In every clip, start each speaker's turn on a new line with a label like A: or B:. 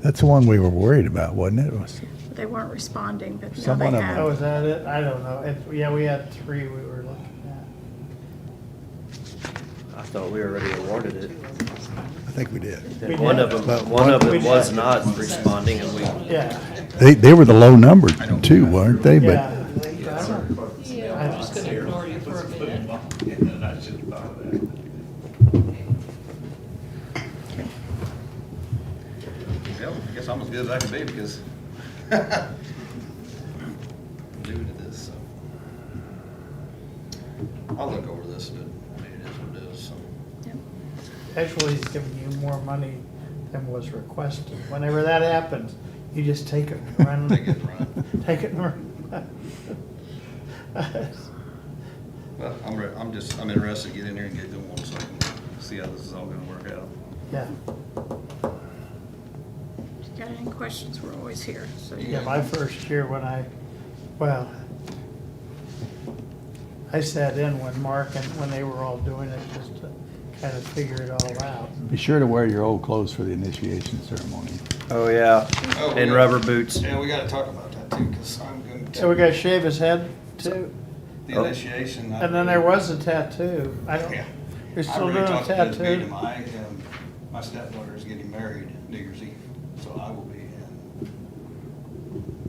A: That's the one we were worried about, wasn't it? It was-
B: They weren't responding, but now
A: Some
B: they
A: one of
B: have.
A: them.
C: Oh, is that it? I don't know. It- Yeah, we had three we were looking at.
D: I thought we already awarded it.
A: I think we did.
C: We
D: And one of
C: did.
A: But
D: them, one of
C: we
D: them was
C: did.
D: not responding and we,
C: Yeah,
A: They, they were the low number too, weren't they? But
C: yeah.
E: Yeah, I'm just gonna ignore you for a minute.
F: Well, I guess I'm as good as I can be because new to this, so. I'll look over this, but I mean, it is what it is, so.
C: Oh.
B: Yep.
C: Actually, he's giving you more money than was requested. Whenever that happens, you just take it and run.
F: Take it and run.
C: Take it and run.
F: Well, I'm, re- I'm just, I'm interested to get in there and get going, so I can see how this is all gonna work out.
C: Yeah,
B: If you got any questions, we're always here, so.
C: yeah, my first year when I, well, I sat in when Mark and when they were all doing it, just to kind of figure it all out.
A: be sure to wear your old clothes for the initiation ceremony.
D: oh yeah,
F: Oh, we
D: and
F: got-
D: rubber boots.
F: Yeah, we gotta talk about that too, because I'm going to.
C: So we gotta shave his head too,
F: The initiation. I-
C: and then there was a tattoo. I don't,
F: Yeah.
C: you're
F: I
C: still
F: really
C: doing a
F: talked to this meeting.
C: tattoo?
F: My, um, my stepdaughter is getting married New Year's Eve, so I will be in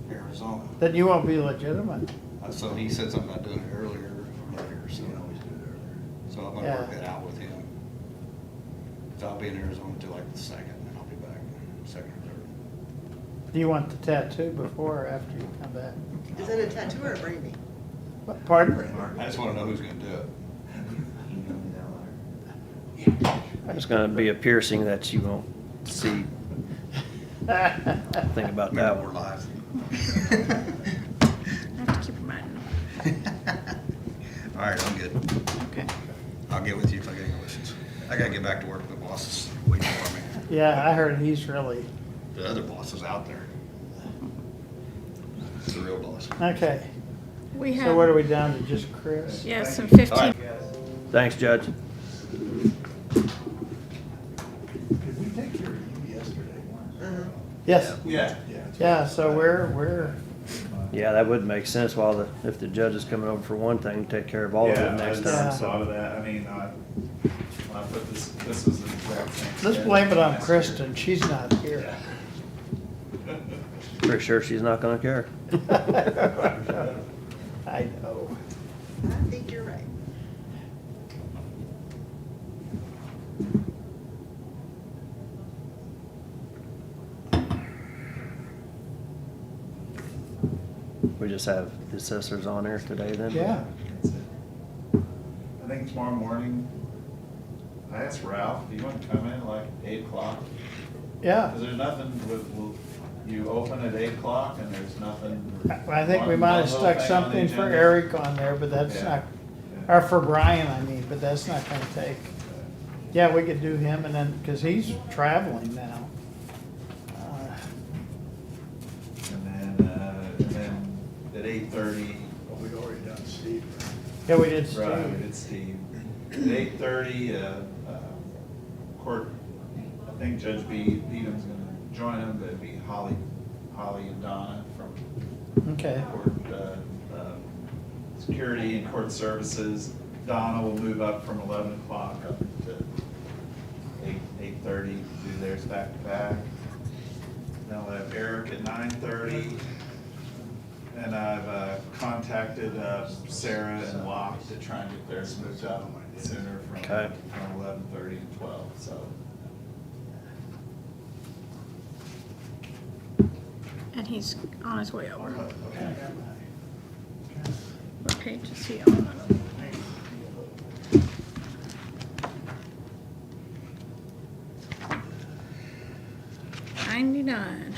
F: Arizona.
C: Then you won't be legitimate.
F: Uh, So he said something about doing it earlier, earlier, so. So I'm gonna work
C: Yeah.
F: that out with him. So I'll be in Arizona till like the second, and I'll be back second or third.
C: Do you want the tattoo before or after you come back?
G: Is it a tattoo or a brainy?
C: What- Pardon?
F: I just wanna know who's gonna do it.
D: It's gonna be a piercing that you won't see. Think about that
F: Maybe we're
D: one.
F: live.
B: I have to keep in mind,
F: All right, I'm good.
B: okay.
F: I'll get with you if I get any questions. I gotta get back to work. The boss is waiting for me.
C: Yeah, I heard he's really,
F: The other boss is out there. The real boss.
C: okay.
B: We
C: So what are
B: have,
C: we down to, just Chris?
B: yes, and fifteen,
F: Alright.
D: Thanks, Judge.
H: Did we take E care of you yesterday?
C: Yes,
H: Yeah. Yeah.
C: yeah, so we're, we're,
D: Yeah, that would make sense while the, if the judge is coming over for one thing, take care of all of
H: Yeah,
D: it
H: I
D: next
H: just
D: time.
C: time.
H: Thought of that, I mean, I, I put this, this was the exact same.
C: let's blame it on Kristen, she's not here.
D: Pretty sure she's not gonna care.
C: I know.
G: I think you're right.
D: We just have the assessors on here today then?
C: Yeah,
H: That's it. I think tomorrow morning, I asked Ralph, do you want to come in like eight o'clock?
C: yeah.
H: Because there's nothing with, will- you open at eight o'clock and there's nothing.
C: I think we
H: one-
C: might
H: one
C: have
H: little
C: stuck
H: thing on the
C: something for
H: agenda.
C: Eric on there, but that's
H: Yeah.
C: not,
H: Yeah.
C: or for Brian, I mean, but that's not gonna take. Yeah, we could do him and then, cause he's traveling now. Uh,
H: And then, uh, and then at eight thirty,
A: We already done Steve.
C: Yeah, we did
H: right,
C: Steve.
H: it's Steve. At eight thirty, uh, uh, court, I think Judge Be- Beadham's gonna join him, but it'd be Holly, Holly and Donna from
C: Okay,
H: court, uh, uh, security and court services. Donna will move up from eleven o'clock up to eight, eight-thirty, do theirs back to back. Then we'll have Eric at nine-thirty. And I've uh, contacted uh, Sarah and Locke to try and get theirs moved up sooner from
D: Okay.
H: from eleven-thirty to twelve, so.
B: and he's on his way over.
H: Okay.
B: What page is he on? Ninety-nine.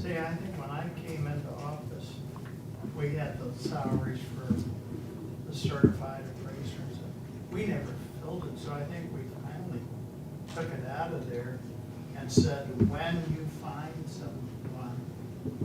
C: see, I think when I came into office, we had those salaries for the certified appraisers. We never filled it, so I think we finally took it out of there and said, when you find somebody,